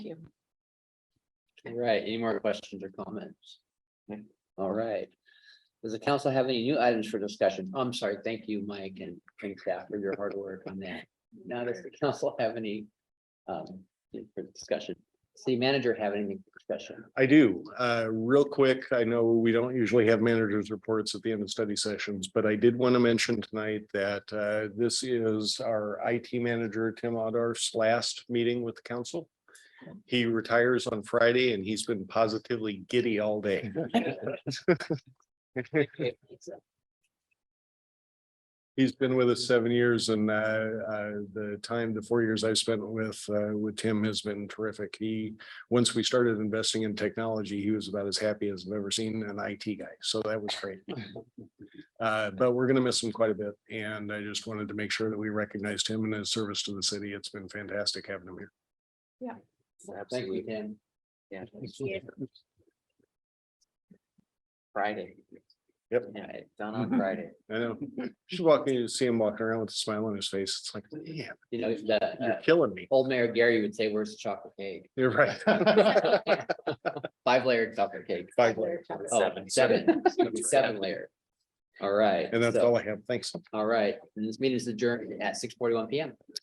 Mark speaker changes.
Speaker 1: you.
Speaker 2: All right, any more questions or comments? All right. Does the council have any new items for discussion? Oh, I'm sorry, thank you, Mike and Frank Staff for your hard work on that. Now, does the council have any um for discussion? City manager have anything for discussion?
Speaker 3: I do. Uh, real quick, I know we don't usually have managers' reports at the end of study sessions, but I did want to mention tonight that, uh, this is our IT manager, Tim Odar's last meeting with the council. He retires on Friday and he's been positively giddy all day. He's been with us seven years and, uh, uh, the time, the four years I spent with, uh, with Tim has been terrific. He once we started investing in technology, he was about as happy as I've ever seen an IT guy. So that was great. Uh, but we're gonna miss him quite a bit, and I just wanted to make sure that we recognized him and his service to the city. It's been fantastic having him here.
Speaker 2: Thank you, Tim.
Speaker 1: Yeah.
Speaker 2: Friday.
Speaker 3: Yep.
Speaker 2: Yeah, it's done on Friday.
Speaker 3: I know, just walking, you see him walking around with a smile on his face. It's like, yeah,
Speaker 2: You know, the
Speaker 3: you're
Speaker 2: uh,
Speaker 3: killing me.
Speaker 2: old mayor Gary would say, where's the chocolate cake?
Speaker 3: You're right.
Speaker 2: Five layered chocolate cake.
Speaker 3: Five layer.
Speaker 2: Oh,
Speaker 3: Seven.
Speaker 2: seven, seven layer. All right.
Speaker 3: And that's
Speaker 2: so-
Speaker 3: all I have. Thanks.
Speaker 2: All right, and this meeting is adjourned at six forty-one PM.